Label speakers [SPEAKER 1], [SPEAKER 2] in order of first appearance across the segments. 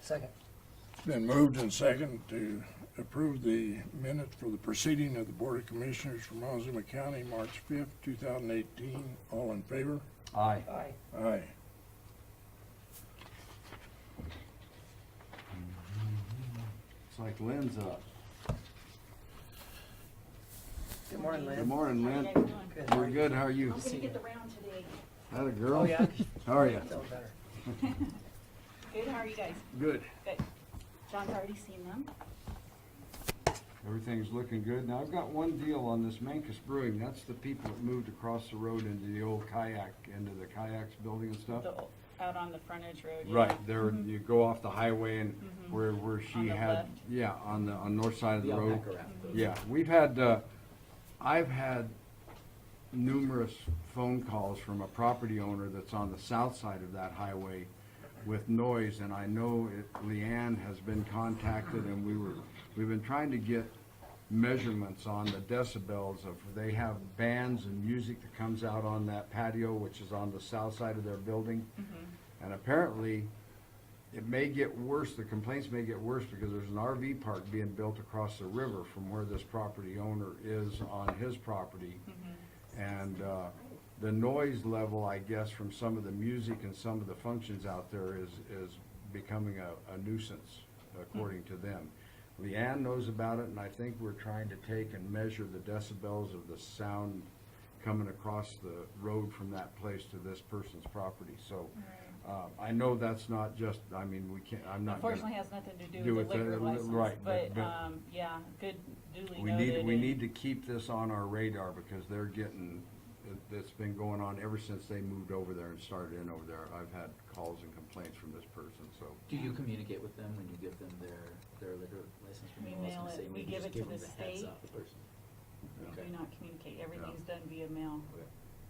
[SPEAKER 1] Second.
[SPEAKER 2] Been moved and second to approve the minutes for the proceeding of the Board of Commissioners from Montezuma County, March fifth, two thousand eighteen. All in favor?
[SPEAKER 3] Aye.
[SPEAKER 1] Aye.
[SPEAKER 2] Aye.
[SPEAKER 3] It's like Lynn's up.
[SPEAKER 1] Good morning,
[SPEAKER 3] Good
[SPEAKER 1] Lynn.
[SPEAKER 3] morning,
[SPEAKER 4] How you
[SPEAKER 3] Lynn.
[SPEAKER 4] guys doing?
[SPEAKER 1] Good.
[SPEAKER 3] We're good, how are you?
[SPEAKER 4] I'm gonna get the round today.
[SPEAKER 3] Had a
[SPEAKER 1] Oh,
[SPEAKER 3] girl?
[SPEAKER 1] yeah?
[SPEAKER 3] How are you?
[SPEAKER 1] Sounds better.
[SPEAKER 4] Good, how are you guys?
[SPEAKER 3] Good.
[SPEAKER 4] Good. John's already seen them.
[SPEAKER 3] Everything's looking good. Now, I've got one deal on this Mancus Brewing. That's the people that moved across the road into the old kayak, into the kayaks building and stuff.
[SPEAKER 4] The, out on the frontage road. yeah.
[SPEAKER 3] Right, there, you go off the highway and
[SPEAKER 1] Mm-hmm.
[SPEAKER 3] where, where
[SPEAKER 4] On
[SPEAKER 3] she
[SPEAKER 4] the
[SPEAKER 3] had,
[SPEAKER 4] left.
[SPEAKER 3] yeah, on the, on north side of the
[SPEAKER 5] The
[SPEAKER 3] road.
[SPEAKER 5] alpaca wrap.
[SPEAKER 3] Yeah, we've had, uh, I've had numerous phone calls from a property owner that's on the south side of that highway with noise, and I know it, Leanne has been contacted, and we were, we've been trying to get measurements on the decibels of, they have bands and music that comes out on that patio, which is on the south side of their building.
[SPEAKER 4] Mm-hmm.
[SPEAKER 3] And apparently, it may get worse, the complaints may get worse because there's an RV park being built across the river from where this property owner is on his property. And, uh, the noise level, I guess, from some of the music and some of the functions out there is, is becoming a, a nuisance, according to them. Leanne knows about it, and I think we're trying to take and measure the decibels of the sound coming across the road from that place to this person's property, so. Uh, I know that's not just, I mean, we can't, I'm not. gonna-
[SPEAKER 4] Unfortunately, has nothing to
[SPEAKER 3] Do
[SPEAKER 4] do with
[SPEAKER 3] with
[SPEAKER 4] the liquor
[SPEAKER 3] the-
[SPEAKER 4] license.
[SPEAKER 3] right, but-
[SPEAKER 4] But,
[SPEAKER 3] but-
[SPEAKER 4] um, yeah, good duly
[SPEAKER 3] We
[SPEAKER 4] noted.
[SPEAKER 3] need, we
[SPEAKER 4] and-
[SPEAKER 3] need to keep this on our radar because they're getting, it- it's been going on ever since they moved over there and started in over there. I've had calls and complaints from this person, so.
[SPEAKER 5] Do
[SPEAKER 4] Um,
[SPEAKER 5] you communicate with them when you give them their, their liquor license
[SPEAKER 4] We
[SPEAKER 5] renewals?
[SPEAKER 4] mail
[SPEAKER 5] and say
[SPEAKER 4] it.
[SPEAKER 5] maybe
[SPEAKER 4] We give
[SPEAKER 5] just
[SPEAKER 4] it to
[SPEAKER 5] them
[SPEAKER 4] the
[SPEAKER 5] heads
[SPEAKER 4] state.
[SPEAKER 5] up first?
[SPEAKER 4] We
[SPEAKER 5] Okay.
[SPEAKER 4] Do not communicate. Everything's done via mail.
[SPEAKER 5] Okay.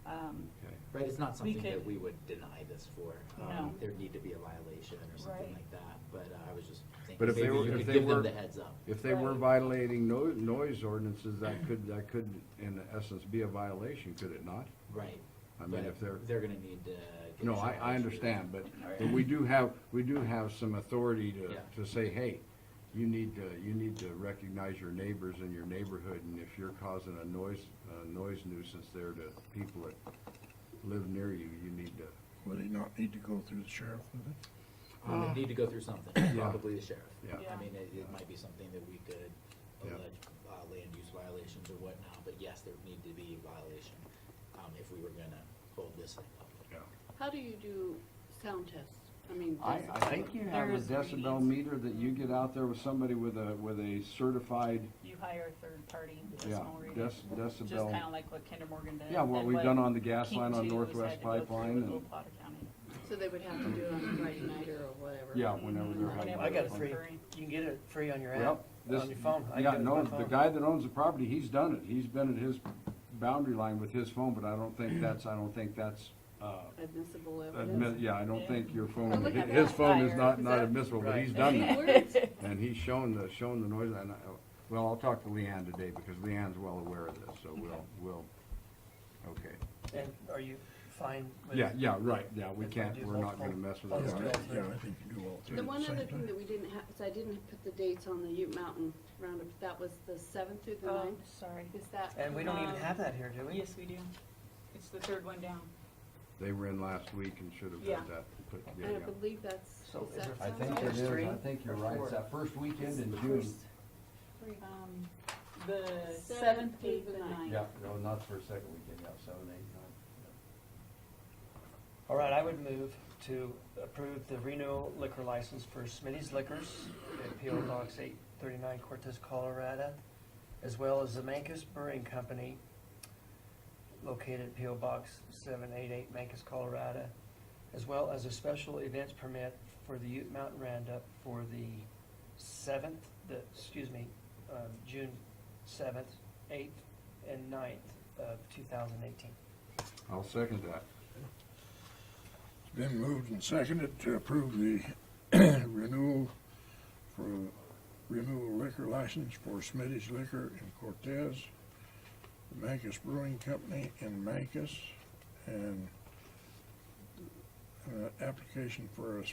[SPEAKER 4] Um,
[SPEAKER 3] Okay.
[SPEAKER 5] Right, it's not something that
[SPEAKER 4] could-
[SPEAKER 5] we would deny this for. Um,
[SPEAKER 4] No.
[SPEAKER 5] There'd need to be a violation or something
[SPEAKER 4] Right.
[SPEAKER 5] like that, but uh, I was just
[SPEAKER 3] But
[SPEAKER 5] thinking,
[SPEAKER 3] if they
[SPEAKER 5] maybe
[SPEAKER 3] were-
[SPEAKER 5] you
[SPEAKER 3] if
[SPEAKER 5] could
[SPEAKER 3] they
[SPEAKER 5] give
[SPEAKER 3] were-
[SPEAKER 5] them the heads up.
[SPEAKER 3] If they were
[SPEAKER 4] Right.
[SPEAKER 3] violating no, noise ordinances, that could, that could in essence be a violation, could it not?
[SPEAKER 5] Right.
[SPEAKER 3] I mean,
[SPEAKER 5] But
[SPEAKER 3] if they're-
[SPEAKER 5] They're gonna need to. get
[SPEAKER 3] No,
[SPEAKER 5] some
[SPEAKER 3] I, I
[SPEAKER 5] measure.
[SPEAKER 3] understand, but,
[SPEAKER 5] All right.
[SPEAKER 3] but we do have, we do have some authority
[SPEAKER 5] Yeah.
[SPEAKER 3] to, to say, hey, you need to, you need to recognize your neighbors in your neighborhood, and if you're causing a noise, a noise nuisance there to people that live near you, you need to.
[SPEAKER 2] Would he not need to go through the sheriff with it?
[SPEAKER 5] We would Um, need to go through something, probably the sheriff.
[SPEAKER 3] Oh. Yeah.
[SPEAKER 4] Yeah.
[SPEAKER 5] I mean, it, it might be something that we could
[SPEAKER 3] Yeah.
[SPEAKER 5] allege, uh, land use violations or whatnot, but yes, there would need to be a violation, um, if we were gonna hold this thing up.
[SPEAKER 6] How do you do sound tests? I mean.
[SPEAKER 3] I, I
[SPEAKER 6] decibel-
[SPEAKER 3] think you have a
[SPEAKER 6] there's
[SPEAKER 3] decibel
[SPEAKER 6] readings.
[SPEAKER 3] meter that you get out there with somebody with a, with a certified,
[SPEAKER 4] You hire a third party
[SPEAKER 3] yeah,
[SPEAKER 4] decimal reader.
[SPEAKER 3] dec-
[SPEAKER 4] Just
[SPEAKER 3] decibel.
[SPEAKER 4] kinda like what Kinder Morgan did.
[SPEAKER 3] Yeah, what
[SPEAKER 4] and
[SPEAKER 3] we've done on the gas
[SPEAKER 4] King
[SPEAKER 3] line on
[SPEAKER 4] Two has had
[SPEAKER 3] Northwest
[SPEAKER 4] to go through
[SPEAKER 3] Pipeline
[SPEAKER 4] with
[SPEAKER 3] and-
[SPEAKER 4] Opata County.
[SPEAKER 6] So they would have to do it on a Friday night or whatever.
[SPEAKER 3] Yeah, whenever they're. having
[SPEAKER 4] Whenever
[SPEAKER 1] I got
[SPEAKER 3] their
[SPEAKER 1] it
[SPEAKER 4] it's
[SPEAKER 3] fun-
[SPEAKER 1] free.
[SPEAKER 4] free.
[SPEAKER 1] You can get it free on your app,
[SPEAKER 3] Well, this,
[SPEAKER 1] on your phone. I
[SPEAKER 3] yeah,
[SPEAKER 1] got it
[SPEAKER 3] no,
[SPEAKER 1] on my
[SPEAKER 3] the
[SPEAKER 1] phone.
[SPEAKER 3] guy that owns the property, he's done it. He's been at his boundary line with his phone, but I don't think that's, I don't think that's, uh,
[SPEAKER 6] Admissible
[SPEAKER 3] admit,
[SPEAKER 6] evidence.
[SPEAKER 3] yeah, I don't think your phone,
[SPEAKER 4] Oh, look at
[SPEAKER 3] his
[SPEAKER 4] that
[SPEAKER 3] phone is
[SPEAKER 4] fire.
[SPEAKER 3] not,
[SPEAKER 6] Is
[SPEAKER 3] not
[SPEAKER 6] that-
[SPEAKER 3] admissible, but
[SPEAKER 2] Right.
[SPEAKER 3] he's done that.
[SPEAKER 6] Words?
[SPEAKER 3] And he's shown the, shown the noise, and I, well, I'll talk to Leanne today, because Leanne's well aware of this, so we'll, we'll, okay.
[SPEAKER 1] And are you fine with?
[SPEAKER 3] Yeah, yeah, right, yeah, we
[SPEAKER 1] If I
[SPEAKER 3] can't,
[SPEAKER 1] do
[SPEAKER 3] we're not
[SPEAKER 1] multiple-
[SPEAKER 3] gonna mess with
[SPEAKER 2] Yeah,
[SPEAKER 1] Let's
[SPEAKER 3] it.
[SPEAKER 1] do all
[SPEAKER 2] I-
[SPEAKER 1] three.
[SPEAKER 2] yeah, I think you do all three
[SPEAKER 6] The
[SPEAKER 2] at the
[SPEAKER 6] one
[SPEAKER 2] same
[SPEAKER 6] other thing
[SPEAKER 2] time.
[SPEAKER 6] that we didn't have, is I didn't put the dates on the Ute Mountain roundup. That was the seventh through the
[SPEAKER 4] Oh,
[SPEAKER 6] ninth.
[SPEAKER 4] sorry.
[SPEAKER 6] Is that?
[SPEAKER 1] And we don't even
[SPEAKER 4] Um,
[SPEAKER 1] have that here, do we?
[SPEAKER 4] Yes, we do. It's the third one down.
[SPEAKER 3] They were in last week and should have
[SPEAKER 4] Yeah.
[SPEAKER 3] had that, put, yeah,
[SPEAKER 6] I
[SPEAKER 3] yeah.
[SPEAKER 6] believe that's.
[SPEAKER 1] So
[SPEAKER 6] is
[SPEAKER 1] is
[SPEAKER 6] that
[SPEAKER 1] there-
[SPEAKER 3] I think
[SPEAKER 6] sound
[SPEAKER 3] it is, I
[SPEAKER 1] Three
[SPEAKER 3] think you're
[SPEAKER 1] or
[SPEAKER 3] right,
[SPEAKER 1] four?
[SPEAKER 3] it's that first weekend in June.
[SPEAKER 4] Um, The
[SPEAKER 6] Seventh
[SPEAKER 4] seventh,
[SPEAKER 6] through
[SPEAKER 4] eighth,
[SPEAKER 6] the
[SPEAKER 4] and
[SPEAKER 6] ninth.
[SPEAKER 4] ninth.
[SPEAKER 3] Yeah, no, not for a second weekend, yeah, seven, eight, nine.
[SPEAKER 1] All right, I would move to approve the renewal liquor license for Smitty's Liquors at PO Box eight thirty-nine Cortez, Colorado, as well as the Mancus Brewing Company located at PO Box seven eight eight Mancus, Colorado, as well as a special events permit for the Ute Mountain Roundup for the seventh, the, excuse me, um, June seventh, eighth, and 9th of two thousand eighteen.
[SPEAKER 3] I'll second that.
[SPEAKER 2] Been moved and seconded to approve the renewal for renewal liquor license for Smitty's Liquor in Cortez, the Mancus Brewing Company in Mancus, and an uh, application for a